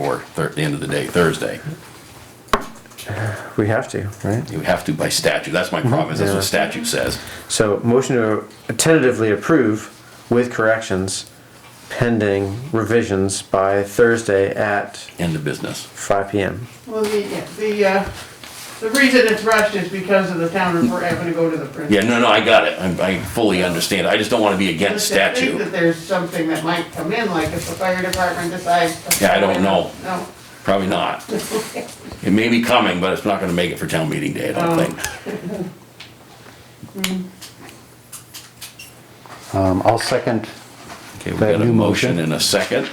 or thir- the end of the day, Thursday. We have to, right? You have to by statute. That's my promise. That's Yeah. what statute says. So motion to tentatively approve with corrections pending revisions by Thursday at End of business. five PM. Well, the, the, uh, the reason it's rushed is because of the town report having to go to the principal. Yeah, no, no, I got it. I, I fully understand. I just don't want to be against Just to think statute. That there's something that might come in, like if the fire department decides. Yeah, I don't know. No, Probably not. It may be coming, but it's not going to make it for town meeting day, I don't Oh. think. Um, I'll second. Okay, we That got a new motion motion. and a second.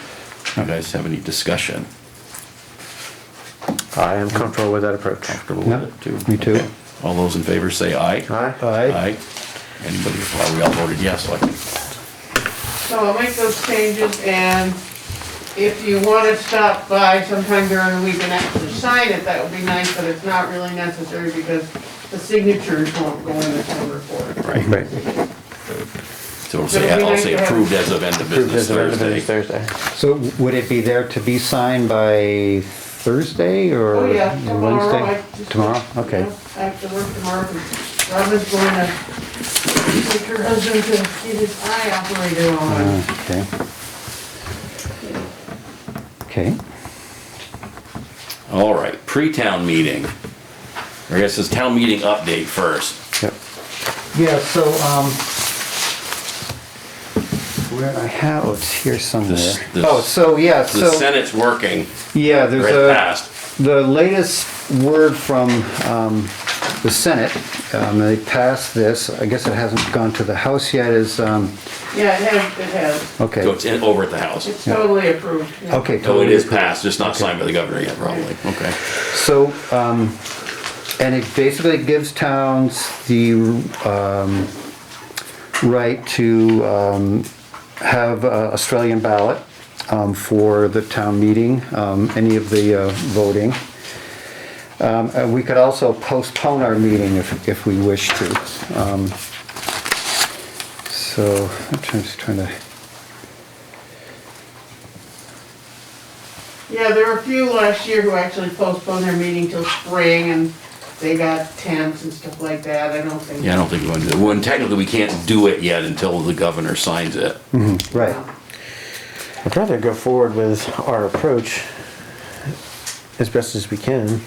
You guys have any discussion? I am comfortable with that approach. Comfortable No, with it, too? me too. Okay. All those in favor say aye. Aye? Aye. Anybody, well, we all voted yes, so I can so I'll make those changes and if you wanna stop by sometime during the week and actually sign it, that would be nice, but it's not really necessary because the signatures won't go in the town report. Right, Right. so it'll say, I'll say approved as of end of Approved business as of end of business Thursday. Thursday. So would it be there to be signed by Thursday or Oh, yeah, Wednesday? tomorrow. I just- Tomorrow? I Okay. have to work tomorrow, but Robin's going to take her husband to get his eye operated on. Uh, Okay. Okay. All right, pre-town meeting. I guess it's town meeting update first. Yep. Yeah, so, um, where I have, oh, it's here somewhere. This- this- Oh, so, yeah, The so, Senate's working, yeah, there's right a. past. The latest word from um, the Senate, um, they passed this, I guess it hasn't gone to the House yet, is, um, Yeah, it has, it has. So okay, it's in, over at the House. It's totally approved. yeah. okay. So it totally. is passed, just not signed by the governor yet, probably. Okay. So, um, and it basically gives towns the um, right to um, have uh, Australian ballot um, for the town meeting, um, any of the uh, voting. Um, And we could also postpone our meeting if, if we wish to. Um, So I'm just trying to, Yeah, there were a few last year who actually postponed their meeting till spring and they got tents and stuff like that. I don't think. Yeah, I don't think we're going to, do it. well, technically, we can't do it yet until the governor signs it. right, I'd rather go forward with our approach as best as we can.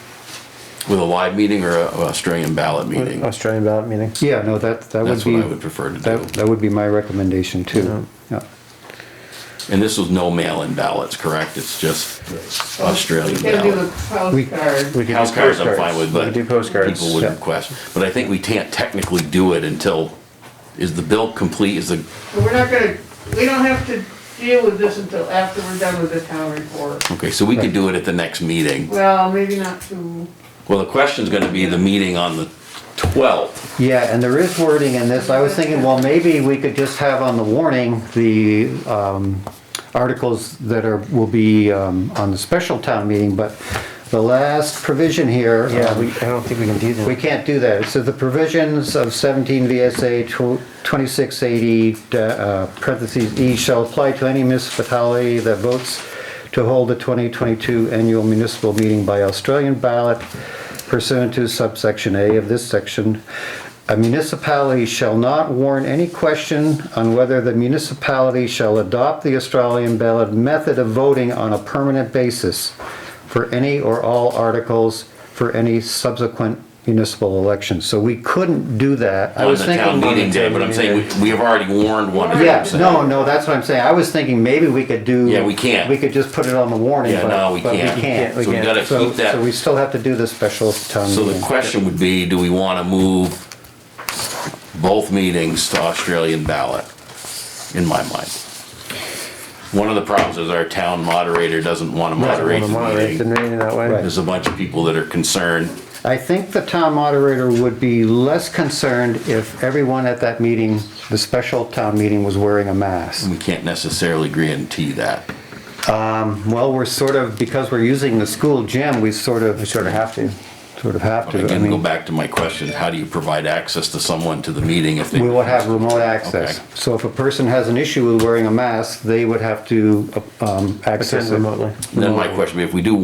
With a live meeting or a a Australian ballot meeting? Australian ballot meeting. yeah, no, that, Uh, that would That's be, what I would prefer to that, do. that would be my recommendation too. Yeah. And this was no mail-in ballots, correct? It's just You Australian can do ballot. the postcard. We could do House cards I'm fine postcards. with, We but. could do postcards. People would yeah. request, but I think we can't technically do it until, is the bill complete, is the, But we're not gonna, we don't have to deal with this until after we're done with the town report. okay, so we could do it at the next meeting. Well, maybe not too. Well, the question's gonna be the meeting on the twelfth, Yeah, and there is wording in this. I was thinking, well, maybe we could just have on the warning, the um, articles that are, will be um, on the special town meeting, but the last provision here. Yeah, um, we, I don't think we can do that. We can't do that. So the provisions of 17 VSA tw- 2680, uh, parentheses, E shall apply to any municipality that votes to hold the 2022 annual municipal meeting by Australian ballot pursuant to subsection A of this section. A municipality shall not warn any question on whether the municipality shall adopt the Australian ballot method of voting on a permanent basis for any or all articles for any subsequent municipal election. So we couldn't do that. I on was the town thinking. meeting day, but I'm saying, we- we have already warned one. of Yeah, them, so- no, no, that's what I'm saying. I was thinking maybe we could do. Yeah, we can't. We could just put it on the warning, Yeah, but. no, we but can't. we can't. So we can't. gotta So, keep that. so we still have to do the special town So the meeting. question would be, do we wanna move both meetings to Australian ballot, in my mind? One of the problems is our town moderator doesn't wanna moderate Wanna the moderate the meeting. meeting that way. Right. There's a bunch of people that are concerned, I think the town moderator would be less concerned if everyone at that meeting, the special town meeting, was wearing a mask. we can't necessarily guarantee that. Mm. Well, we're sort of, because we're using the school gym, we sort of. We sort of have to. sort of have to. I Again, go mean, back to my question, how do you provide access to someone to the meeting if they? we will have remote access. Okay. So if a person has an issue with wearing a mask, they would have to um, access Attend it. remotely. Then my question, would be, if we do